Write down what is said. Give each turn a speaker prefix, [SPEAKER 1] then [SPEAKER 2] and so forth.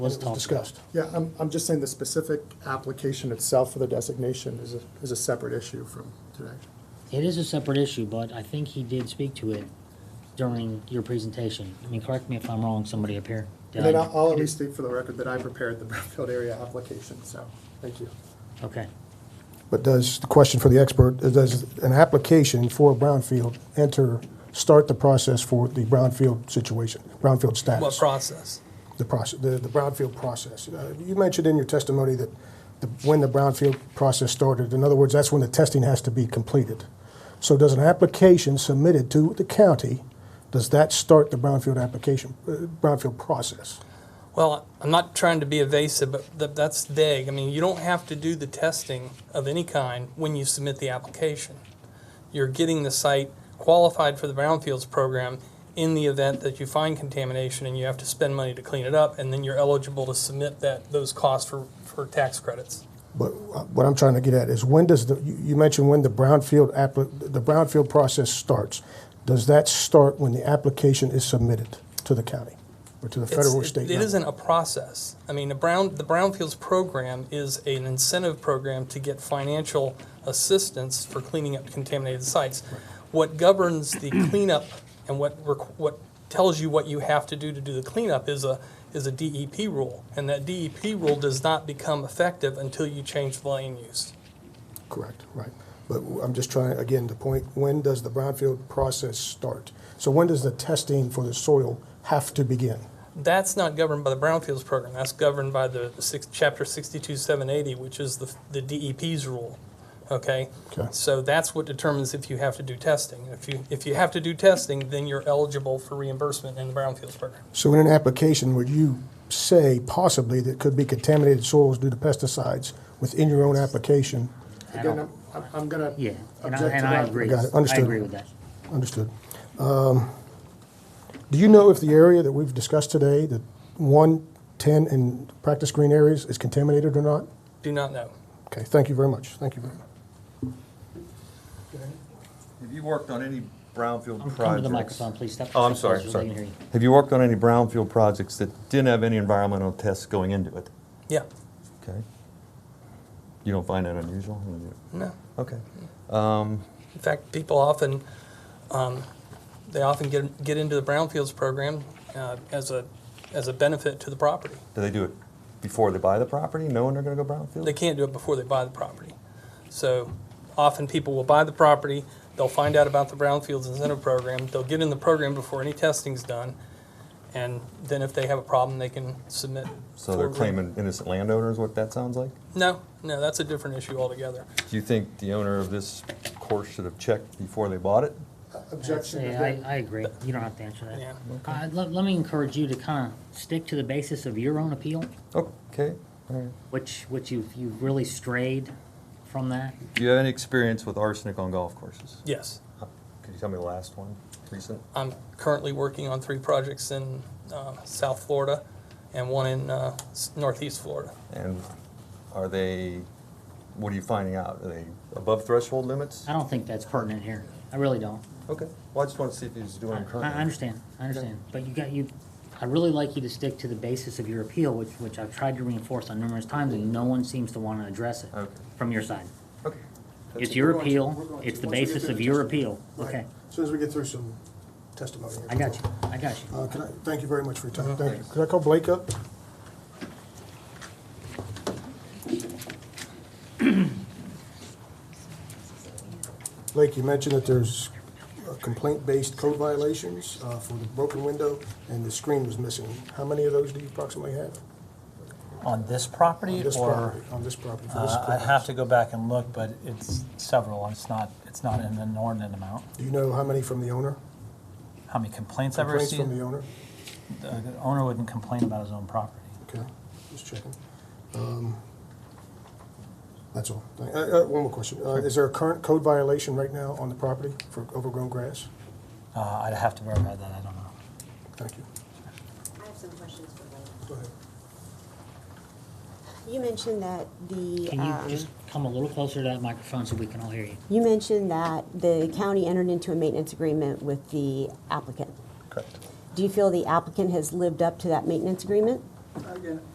[SPEAKER 1] Was
[SPEAKER 2] It was discussed. Yeah, I'm, I'm just saying the specific application itself for the designation is a, is a separate issue from today.
[SPEAKER 1] It is a separate issue, but I think he did speak to it during your presentation. I mean, correct me if I'm wrong, somebody up here.
[SPEAKER 2] And then I'll, I'll at least state for the record that I prepared the Brookfield area application, so, thank you.
[SPEAKER 1] Okay.
[SPEAKER 3] But does, the question for the expert, uh, does an application for a brownfield enter, start the process for the brownfield situation, brownfield
[SPEAKER 4] What
[SPEAKER 3] status?
[SPEAKER 4] process?
[SPEAKER 3] The process, the, the brownfield process. Uh, You mentioned in your testimony that the, when the brownfield process started, in other words, that's when the testing has to be completed. So does an application submitted to the county, does that start the brownfield application, uh, brownfield process?
[SPEAKER 4] Well, I'm not trying to be evasive, but th- that's vague. I mean, you don't have to do the testing of any kind when you submit the application. You're getting the site qualified for the brownfields program in the event that you find contamination and you have to spend money to clean it up, and then you're eligible to submit that those costs for, for tax credits.
[SPEAKER 3] But uh, what I'm trying to get at is when does the, you you mentioned when the brownfield, appli- the brownfield process starts. Does that start when the application is submitted to the county or to the
[SPEAKER 4] It's-
[SPEAKER 3] federal or
[SPEAKER 4] it-
[SPEAKER 3] state?
[SPEAKER 4] It
[SPEAKER 3] level?
[SPEAKER 4] isn't a process. I mean, the brown, the brownfields program is an incentive program to get financial assistance for cleaning up contaminated sites. What governs the cleanup and what, requ- what tells you what you have to do to do the cleanup is a, is a DEP rule. And that DEP rule does not become effective until you change the land use.
[SPEAKER 3] Correct, right. But w- I'm just trying, again, the point, when does the brownfield process start? So when does the testing for the soil have to begin?
[SPEAKER 4] That's not governed by the brownfields program. That's governed by the six, chapter sixty-two seven eighty, which is the, the DEP's rule. Okay?
[SPEAKER 3] Okay.
[SPEAKER 4] So that's what determines if you have to do testing. If you, if you have to do testing, then you're eligible for reimbursement in the brownfields program.
[SPEAKER 3] So in an application, would you say possibly that could be contaminated soils due to pesticides within your own application?
[SPEAKER 1] I
[SPEAKER 2] Again,
[SPEAKER 1] don't,
[SPEAKER 2] I'm, I'm- I'm gonna
[SPEAKER 1] yeah, and I,
[SPEAKER 2] object
[SPEAKER 1] and
[SPEAKER 2] to
[SPEAKER 1] I
[SPEAKER 2] that.
[SPEAKER 1] agree.
[SPEAKER 3] Got it,
[SPEAKER 1] I
[SPEAKER 3] understood.
[SPEAKER 1] agree with that.
[SPEAKER 3] Understood. Um, Do you know if the area that we've discussed today, the one, 10, and practice green areas is contaminated or not?
[SPEAKER 4] Do not know.
[SPEAKER 3] Okay, thank you very much. Thank you very much.
[SPEAKER 5] Have you worked on any brownfield
[SPEAKER 1] Um,
[SPEAKER 5] projects?
[SPEAKER 1] Come to the microphone, please. Step.
[SPEAKER 5] Oh, I'm
[SPEAKER 1] step
[SPEAKER 5] sorry,
[SPEAKER 1] closer so they can hear
[SPEAKER 5] sorry.
[SPEAKER 1] you.
[SPEAKER 5] Have you worked on any brownfield projects that didn't have any environmental tests going into it?
[SPEAKER 4] Yeah,
[SPEAKER 5] Okay. You don't find that unusual?
[SPEAKER 4] no.
[SPEAKER 5] Okay.
[SPEAKER 4] In fact, people often, um, they often get, get into the brownfields program, uh, as a, as a benefit to the property.
[SPEAKER 5] Do they do it before they buy the property, knowing they're gonna go brownfield?
[SPEAKER 4] They can't do it before they buy the property. So often people will buy the property, they'll find out about the brownfields incentive program, they'll get in the program before any testing's done, and then if they have a problem, they can submit.
[SPEAKER 5] So they're
[SPEAKER 4] for-
[SPEAKER 5] claiming innocent landowners, what that sounds like?
[SPEAKER 4] No, no, that's a different issue altogether.
[SPEAKER 5] Do you think the owner of this course should have checked before they bought it?
[SPEAKER 1] That's-
[SPEAKER 2] Objection,
[SPEAKER 1] yeah,
[SPEAKER 2] again.
[SPEAKER 1] I, I agree. You don't have to answer
[SPEAKER 4] Yeah.
[SPEAKER 1] that. Uh, let, let me encourage you to kind of stick to the basis of your own appeal,
[SPEAKER 5] Okay, all right.
[SPEAKER 1] which, which you've, you've really strayed from that.
[SPEAKER 5] Do you have any experience with arsenic on golf courses?
[SPEAKER 4] Yes,
[SPEAKER 5] Could you tell me the last one, recent?
[SPEAKER 4] I'm currently working on three projects in uh, South Florida and one in uh, s- Northeast Florida.
[SPEAKER 5] And are they, what are you finding out? Are they above threshold limits?
[SPEAKER 1] I don't think that's pertinent here. I really don't.
[SPEAKER 5] Okay, well, I just want to see if he's doing
[SPEAKER 1] I
[SPEAKER 5] it
[SPEAKER 1] I
[SPEAKER 5] currently.
[SPEAKER 1] understand, I understand, but you got, you, I really like you to stick to the basis of your appeal, which, which I've tried to reinforce on numerous times, and no one seems to wanna address it
[SPEAKER 5] Okay.
[SPEAKER 1] from your side.
[SPEAKER 5] Okay. That's
[SPEAKER 1] It's
[SPEAKER 5] it.
[SPEAKER 1] your
[SPEAKER 3] We're going to-
[SPEAKER 1] appeal,
[SPEAKER 3] we're going to-
[SPEAKER 1] it's the
[SPEAKER 3] once we get
[SPEAKER 1] basis
[SPEAKER 3] through
[SPEAKER 1] of
[SPEAKER 3] the
[SPEAKER 1] your
[SPEAKER 3] testimony.
[SPEAKER 1] appeal, okay?
[SPEAKER 3] As soon as we get through some testimony.
[SPEAKER 1] I got you, I got you.
[SPEAKER 3] Uh, can I, thank you very much for your time. Thank you. Could I call Blake up? Blake, you mentioned that there's uh, complaint-based code violations uh, for the broken window and the screen was missing. How many of those do you approximately have?
[SPEAKER 6] On this
[SPEAKER 3] on
[SPEAKER 6] property
[SPEAKER 3] this
[SPEAKER 6] or?
[SPEAKER 3] property? On this property, for this
[SPEAKER 6] Uh, I'd have to go back and look, but it's several. It's not, it's not an inordinate amount.
[SPEAKER 3] Do you know how many from the owner?
[SPEAKER 6] How many complaints I've
[SPEAKER 3] Complaints from the
[SPEAKER 6] received? uh,
[SPEAKER 3] owner?
[SPEAKER 6] The the owner wouldn't complain about his own property.
[SPEAKER 3] Okay, just checking. Um, That's all. Thank- Uh, uh, one more question. Uh, is there a current code violation right now on the property for overgrown grass?
[SPEAKER 6] Uh, I'd have to verify that. I don't know.
[SPEAKER 3] Thank you.
[SPEAKER 7] I have some questions for Wayne.
[SPEAKER 3] Go ahead.
[SPEAKER 7] You mentioned that the,
[SPEAKER 1] Can
[SPEAKER 7] um,
[SPEAKER 1] you just come a little closer to that microphone so we can all hear you?
[SPEAKER 7] you mentioned that the county entered into a maintenance agreement with the applicant.
[SPEAKER 5] Correct.
[SPEAKER 7] Do you feel the applicant has lived up to that maintenance agreement?
[SPEAKER 2] Again,